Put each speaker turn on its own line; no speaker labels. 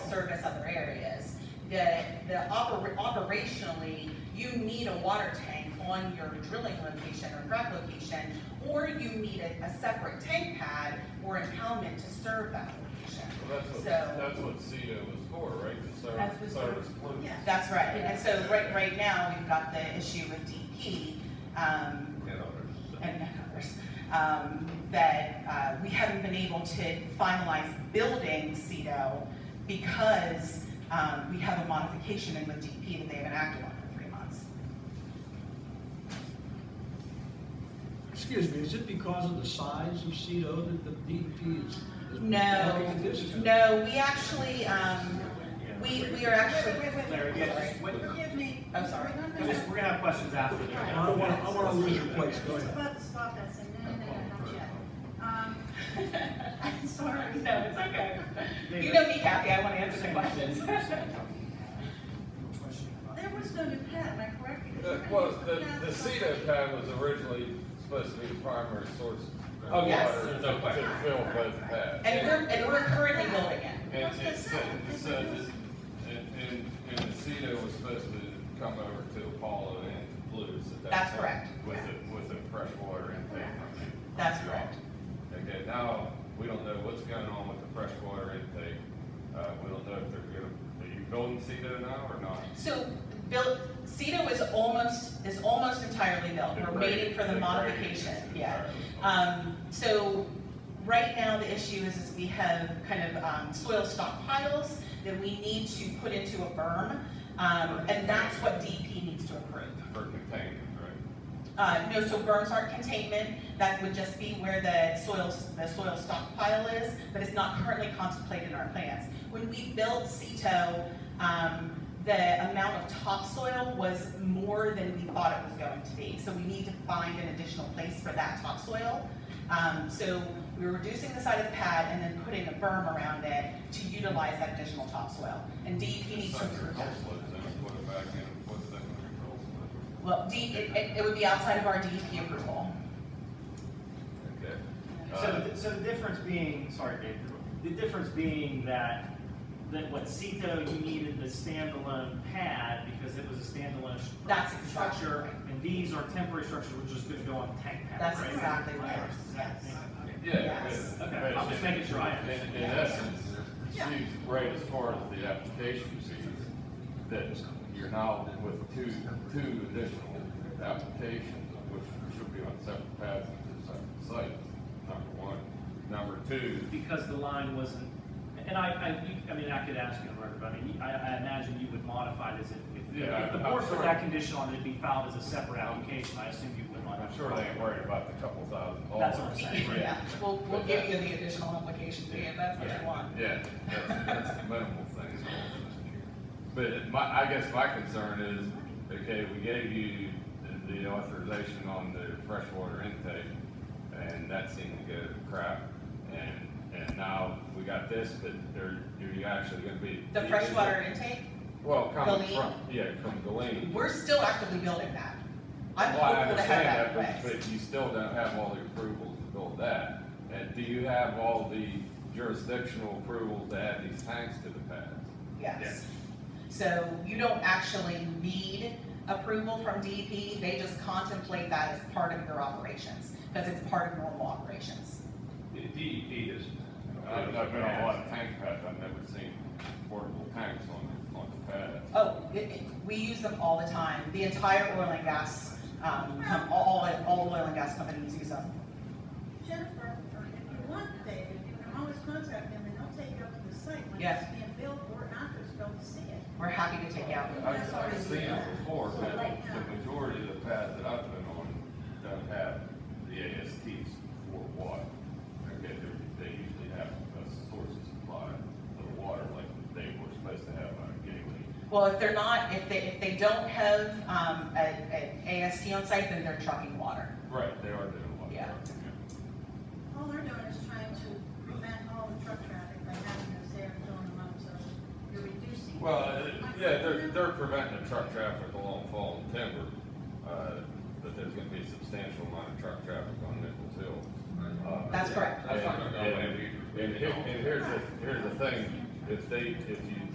the, the oper- operationally, you need a water tank on your drilling location or frac location, or you need a, a separate tank pad or impoundment to serve that location.
Well, that's what,
So-
that's what CETA was for, right? To
That's what
serve, service plumes.
yeah.
That's right, and so right, right now, we've got the issue with DEP, um,
And others.
and others, um, that, uh, we haven't been able to finalize building CEDO because, um, we have a modification in with DEP that they haven't acted on for three months.
Excuse me, is it because of the size of CEDO that the DEP is? is
No.
blocking the discount?
No, we actually, um, we, we are actually.
Wait, wait, wait,
Larry,
wait,
yeah,
wait,
just wait.
forgive me.
I'm sorry.
We're not
We're
gonna-
just- we're gonna have questions after. the-
I don't wanna, I wanna lose your place, go
He's
ahead.
about to stop us and no, no, no, not yet. Um, I'm sorry.
No, it's okay. You know me, Kathy, I wanna answer the questions.
There was no new pad, am I correct? Because
The-
we're gonna
Well,
use
the,
pad
the
for-
CETA pad was originally supposed to be the primary source of
Oh,
water
yes.
to
There's no question.
to fill both pads.
And we're, and we're currently building it.
And it
That's what
said,
I said.
it said that- and, and, and the CETA was supposed to come over to Apollo and Blues at that
That's
time
correct.
With a, with a freshwater intake. from-
That's
from
correct.
y'all. Okay, now, we don't know what's going on with the freshwater intake. Uh, we don't know if they're gonna, are you building CETA now or not?
So, built, CEDO is almost, is almost entirely built, we're waiting for the modification, yeah. Um, so, right now, the issue is, is we have kind of, um, soil stockpiles that we need to put into a berm, um, and that's what DEP needs to approve.
For containment, right?
Uh, no, so berms aren't containment, that would just be where the soil, the soil stockpile is, but it's not currently contemplated in our plans. When we built CETO, um, the amount of topsoil was more than we thought it was going to be. So we need to find an additional place for that topsoil. Um, so we were reducing the size of the pad and then putting a berm around it to utilize that additional topsoil. And DEP needs to
Sucker
approve
coal
that.
sludge, then we put it back in, what's that gonna be, coal sludge?
Well, D, it, it- it would be outside of our DEP approval.
Okay. Uh,
So, the- so the difference being, sorry, Dave, the difference being that, that what CETO, you needed the standalone pad because it was a standalone stru-
That's
structure, and these are temporary structures, which is gonna go on tank pad,
That's
right?
exactly right,
Does that make-
yes.
Yeah.
Yes.
but-
Okay, I'm just making sure I
In,
understand.
in essence, she's right as far as the application sees, that you're now with two, two additional applications, which should be on separate paths and two separate sites, number one. Number two,
Because the line wasn't, and I, I, you- I mean, I could ask you on record, but I mean, I, I imagine you would modify this if, if,
Yeah,
if the
I'm
board put
sure.
that condition on it be filed as a separate application, I assume you would modify.
I'm sure they ain't worried about the couple thousand dollars.
That's what I'm saying.
Yeah, we'll, we'll give you the additional application fee if that's what you want.
Yeah, that's, that's the minimal thing. But my, I guess my concern is, okay, we gave you the- the authorization on the freshwater intake, and that seemed to go to crap, and, and now we got this, but are, are you actually gonna be?
The freshwater intake,
Well, coming
Galeen.
from, yeah, from Galeen.
we're still actively building that. I'm
Well, I
hopeful to have
understand
that
that,
in
but,
place.
but you still don't have all the approvals to build that. And do you have all the jurisdictional approvals to add these tanks to the pads?
yes. So you don't actually need approval from DEP, they just contemplate that as part of your operations, because it's part of normal operations.
The DEP is.
I've, I've been on a lot of tank pads, I've never seen portable tanks on, on the pad.
Oh, it, it, we use them all the time, the entire oil and gas, um, com- all, all oil and gas companies use them.
Jennifer, or if you want, David, you can always contact them and they'll take you up to the site when
Yes.
it's being built or after it's built to see it.
We're happy to take you out.
I've, I've seen it before, but the majority of the pads that I've been on don't have the ASTs for water. Okay, they, they usually have a source of supply of water like they were supposed to have on a gateway.
Well, if they're not, if they, if they don't have, um, a, an AST on site, then they're trucking water.
Right, they are doing a lot. of
Yeah.
work,
All they're doing is trying to prevent all the truck traffic by having those there and filling them up, so you're reducing.
Well, uh, yeah, they're, they're preventing the truck traffic along Fall and Timber, uh, but there's gonna be a substantial amount of truck traffic on Nichols Hill. Uh,
That's correct.
And, and- and here- and here's the, here's the thing, if they, if you